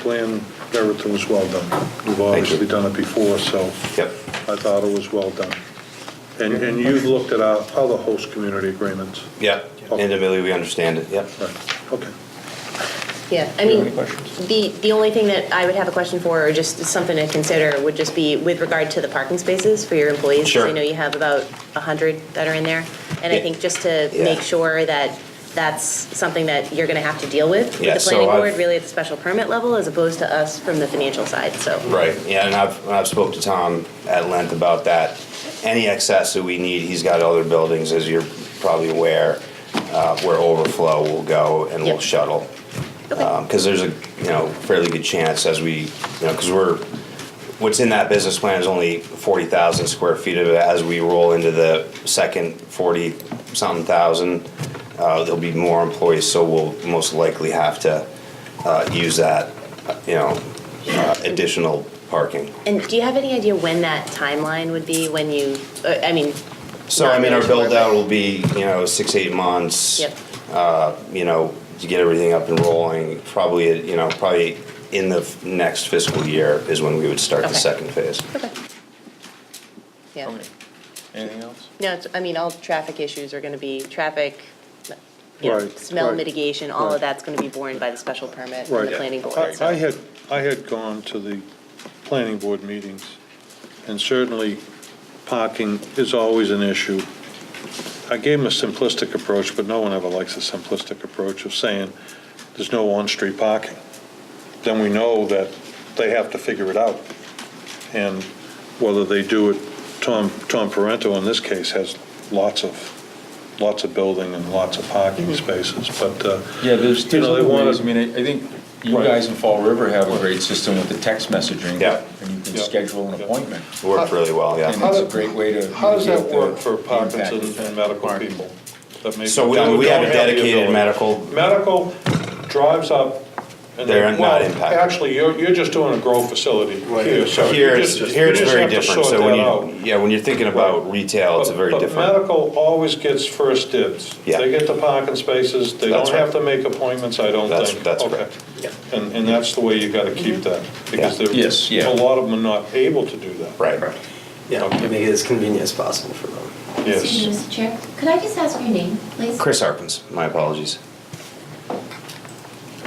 plan, everything was well done. We've obviously done it before, so. Yep. I thought it was well done. And, and you've looked at our other host community agreements. Yeah, individually, we understand it, yep. Right, okay. Yeah, I Do you have mean, any questions? the, the only thing that I would have a question for, or just something to consider, would just be with regard to the parking spaces for your employees. 'cause Sure. I know you have about 100 that are in there. And I Yeah. think just to Yeah. make sure that that's something that you're going to have to deal with with Yeah, the so planning I've- board, really at the special permit level, as opposed to us from the financial side, so. Right, yeah, and I've, and I've spoke to Tom at length about that. Any excess that we need, he's got other buildings, as you're probably aware, uh, where overflow will go and we'll Yep. shuttle. Okay. Because there's a, you know, fairly good chance as we, you know, because we're, what's in that business plan is only forty thousand square feet of it. As we roll into the second forty-something thousand, uh, there'll be more employees, so we'll most likely have to, uh, use that, you know, uh, additional parking. And do you have any idea when that timeline would be, when you, uh, I mean, So, I mean, our Not really sure, build-out but- will be, you know, six, eight months. yep, you know, to get everything up and rolling, probably, you know, probably in the f- next fiscal year is when we would start the Okay. second phase. yeah. Anything else? No, it's, I mean, all traffic issues are gonna be traffic, you know, Right, smell right, mitigation, all right. of that's gonna be borne by the special permit and Right. the planning board, I I so. had, I had gone to the planning board meetings, and certainly parking is always an issue. I gave them a simplistic approach, but no one ever likes a simplistic approach of saying, there's no on-street parking. Then we know that they have to figure it out. And whether they do it, Tom, Tom Parento in this case has lots of, lots of building and lots of parking spaces, but, uh, Yeah, there's, You there's know, they other wanna- ways, I mean, I I think you Right. guys in Fall River have a great system with the text messaging. Yeah. And you can Yeah. schedule an appointment. It Worked really well, And yeah. it's a great way to. How does that mitigate the work for impact of Parkinson's and medical parking. people? that may- So we- that we have a don't the dedicated ability? medical- Medical drives up. and They're they- not well, impacted. Actually, you're, you're just doing a grow facility here, so. you Here it's, just- here you it's just very have to different, sort so when that out. you, yeah, when you're thinking about retail, it's a But- very But different. medical always gets first dibs. Yeah. They get the parking spaces, they That's don't have right. to make appointments, I don't That's- think. that's Okay. correct. And, and that's the way you gotta keep that, because there, Yes, yeah. a lot of them are not able to do that. Right. Yeah, and make it as convenient as possible for them. Yes. Excuse me, Mr. Chair, could I just ask your name, please? Chris Harpins, my apologies.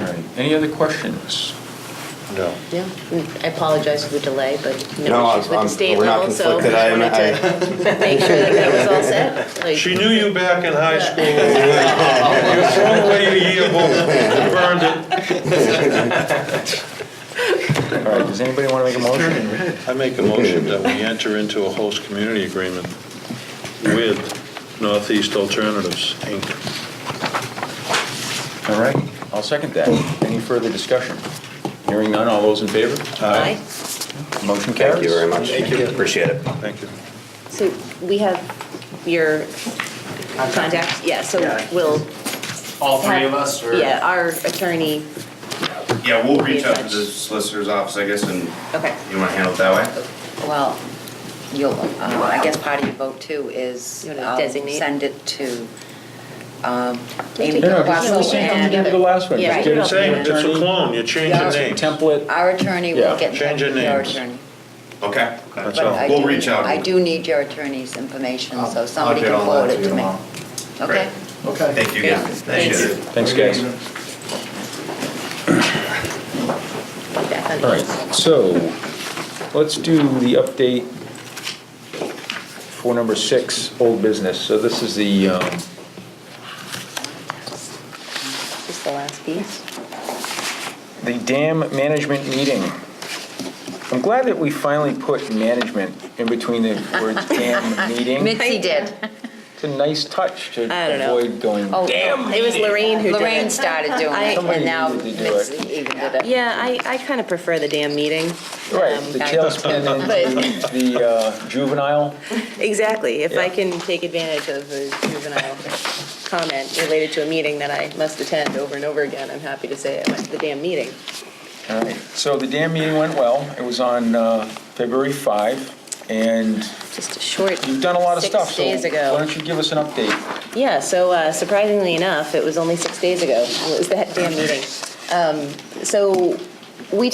All right, any other questions? No. Yeah, Mm, I apologize for the delay, but No, no issues with I'm- the state we're not level, so I conflicted. I am- just wanted to make sure that that was all set. like- She knew you back in high school. You threw away your yearbook, you burned it. All right, does anybody want to make a motion? I make a motion that we enter into a host community agreement with Northeast Alternatives, Inc. All right, I'll second that. Any further discussion? Hearing none, all those in favor? Uh, Aye. Motion carries. Thank you very much. Thank you. Appreciate it. Thank you. So we have your contact, yeah, so Yeah. we'll. All three have- of us, or? Yeah, our attorney, Yeah, we'll reach out to the solicitor's office, I guess, and okay, you wanna handle it that way? Well, you'll, uh, I guess part of your vote too is. You wanna um, designate? Send it to um, Take Amy it No, no, off. just- Russell just and do the last one. Yeah, Just do it get it all to the Same, it's a attorney. clone, you change Yeah. the Some name. Template. our attorney Yeah. will get in Change touch your with your names. attorney. Okay. That's But all. I We'll do- reach out. I do need your attorney's information, so somebody get can all forward that to it you to me. tomorrow. Okay? Okay. Thank you Yeah. again. Appreciate it. Thanks, guys. back on. All right, so let's do the update for number six, old business. So this is the, um, Just the last piece. the dam management meeting. I'm glad that we finally put management in between the word dam meeting. Mitzi did. It's a nice touch to I don't know. avoid going, Oh, damn. It was Lorraine who did it. Lorraine started doing I- it, Somebody and now needed to do it. Mitzi even did it. Yeah, I, I kind of prefer the damn meeting. Right, Um, the I- tailspin and but- the uh, juvenile. Exactly, if I Yeah. can take advantage of a juvenile comment related to a meeting that I must attend over and over again, I'm happy to say I went to the damn meeting. All right, so the dam meeting went well. It was on uh, February 5, and Just a short. You've done a lot of six stuff, so days why ago. don't you give us an update? Yeah, so uh, surprisingly enough, it was only six days ago, it was that damn meeting. Um, So